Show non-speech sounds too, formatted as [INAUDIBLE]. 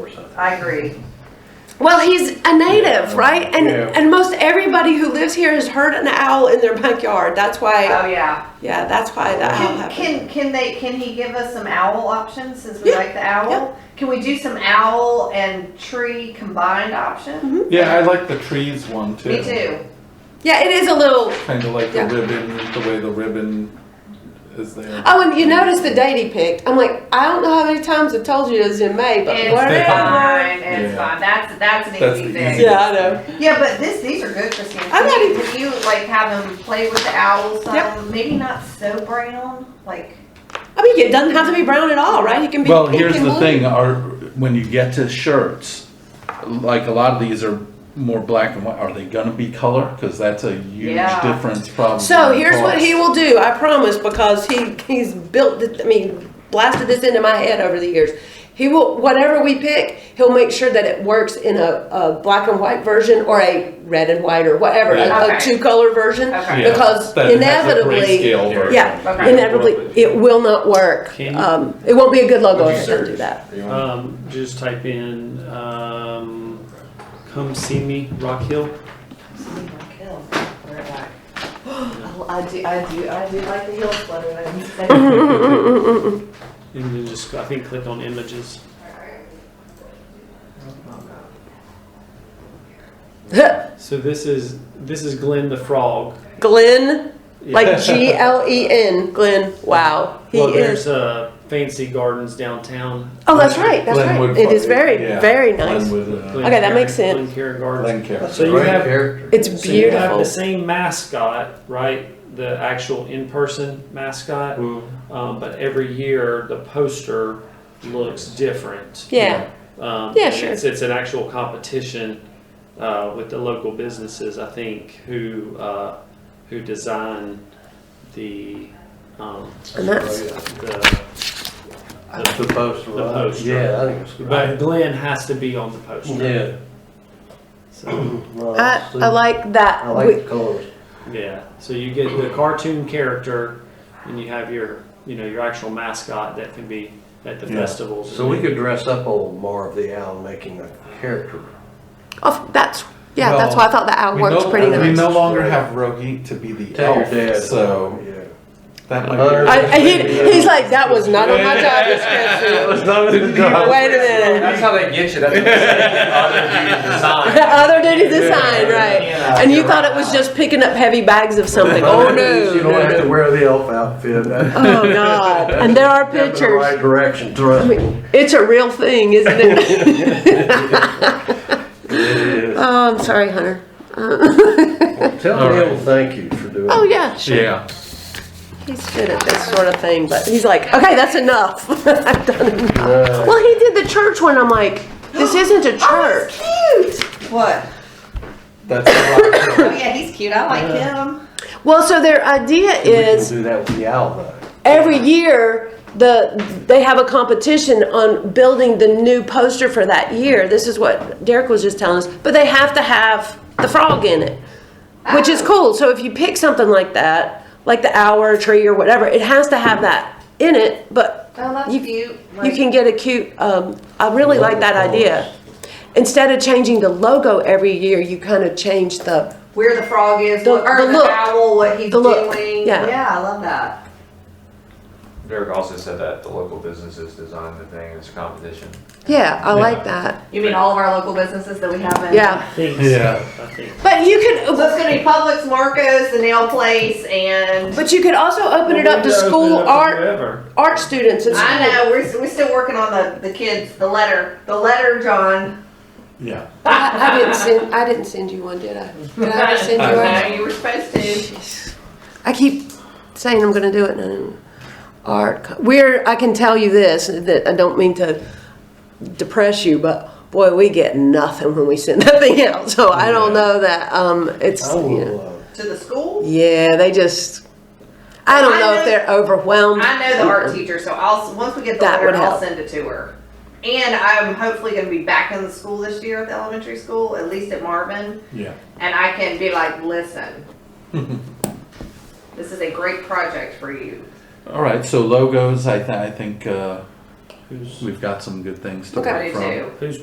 percent. I agree. Well, he's a native, Yeah. right? And Yeah. and most everybody who lives here has heard an owl in their backyard. That's why, Oh, yeah. yeah, that's why that owl Can, happened. can, can they, can he give us some owl options since we Yeah, like the yeah. owl? Can we do some owl and tree combined option? Yeah, I like the trees one too. Me too. Yeah, it is a little. Kind of like the Yeah. ribbon, the way the ribbon is there. Oh, and you notice the date he picked. I'm like, I don't know how many times I've told you it was in May, but It's whatever. fine, it's Yeah. fine. That's, that's That's an the easy easy- thing. Yeah, I know. Yeah, but this, these are good, Christine. I'm not Can you- even- can you like have him play with the owls Yep. some? Maybe not so brown, like, I mean, it doesn't have to be brown at all, right? It can be. Well, pink here's and the blue. thing, are, when you get to shirts, like a lot of these are more black and white, are they gonna be color? Cause that's a huge Yeah. difference probably. So in here's what cost. he will do, I promise, because he, he's built, th- I mean, blasted this into my head over the years. He will, whatever we pick, he'll make sure that it works in a, a black and white version or a red and white or whatever, Yeah. a, Okay. a two color version. okay. Yeah, because that it has a inevitably- grayscale version. Yeah, Okay. inevitably, it will not work. Can you- Um, it won't be a good logo Would you if it doesn't do search? that. Are you on- Um, just type in, um, come see me, Rock Hill. Oh, [GASPS] I do, I do, I do like the heel sweater. I can say. And then just, I think, click on images. So this is, this is Glenn the Frog. [LAUGHS] Glenn, Yeah. like G L E N, Glenn, wow, he Well, is. there's, uh, Fancy Gardens downtown. Oh, that's right, that's right. Glenwood It is Park, very, yeah. very nice. Glenwood, uh, Glen Okay, that Care- makes sense. Glen Care Gardens. Glen Care. So you have- It's So you have beautiful. the same mascot, right? The actual in-person mascot, um, but every year the poster looks different. Yeah. Um, Yeah, and sure. It's, it's an actual competition uh, with the local businesses, I think, who uh, who design the um, And that's, the, the, The poster. The right? poster. Yeah, I think it's. but Glenn has to be on the poster. Yeah. So Well, Uh, I, see, I like that. I like the colors. yeah, so you get the cartoon character, and you have your you know your actual mascot that can be at the Yeah. festivals. So we could dress up old Marv the Owl making a character. oh, that's yeah. that's Well, why I thought the owl We works no- pretty We nice. no longer have Rohit to be the Tell your elf, dad. so Yeah. that might Hunter- be. I, I- he, he's like that was not on my job description. Wait a minute. That's how they get you. That's what they say. Other dudes design. The other duty design, [LAUGHS] right? And you thought it was just picking up heavy bags of something. Oh no! [LAUGHS] You don't have no, to no. wear the elf outfit. That's Oh god! And there are in the right pictures. direction, I trust me. mean, it's a real thing, isn't [LAUGHS] it? [LAUGHS] oh, I'm sorry, Hunter. [LAUGHS] Well, Tell All Neil right. thank you for doing Oh it. yeah, sure. Yeah. He's good at this sort of thing, but he's like, okay, that's enough. [LAUGHS] I've done enough. No. Well, he did the church one. I'm like, this isn't a church. Cute. What? That's the rock. Oh, yeah, he's cute. I like him. Well, so their idea We can is Do that with the owl though. every year the they have a competition on building the new poster for that year. This is what Derek was just telling us, but they have to have the frog in it, which is cool. So if you pick something like that, like the owl or tree or whatever, it has to have that in it, but Oh, that's You- cute. you Like- can get a cute, um, I really like that Logo. idea. Instead of changing the logo every year, you kind of change the, where the frog is, The- what, or the the, look. owl, what he's The look, doing. yeah. I love that. Derek also said that the local businesses design the thing. It's a competition. yeah, I Yeah. like that. You mean all of our local businesses that we have in? Yeah. I think Yeah. so. I think But you could, So it's gonna be Publix, Marcos, the nail place, and but you could also open it up to Well, we school open it up to art, whoever. art students and I school. know we're, we're still working on the the kids, the letter, the letter, John. Yeah. I, I didn't send, I didn't send you one, did I? Did [LAUGHS] I ever send you No, one? you were supposed to. Jeez. I keep saying I'm gonna do it and I don't. Art, co- we're, I can tell you this, that I don't mean to depress you, but boy, we get nothing when we send [LAUGHS] that thing out. So I don't know that, um, it's, I you know. will, uh, To the school. Yeah, they just, I don't I know if know- they're overwhelmed. I know the art teacher, so I'll once we get the That letter, would I'll help. send it to her. And I'm hopefully gonna be back in the school this year at the elementary school, at least at Marvin. Yeah. And I can be like, [LAUGHS] listen, this is a great project for you. All right. So logos, I, th- I think uh, Who's we've got some good things to Okay. I work do from. too. who's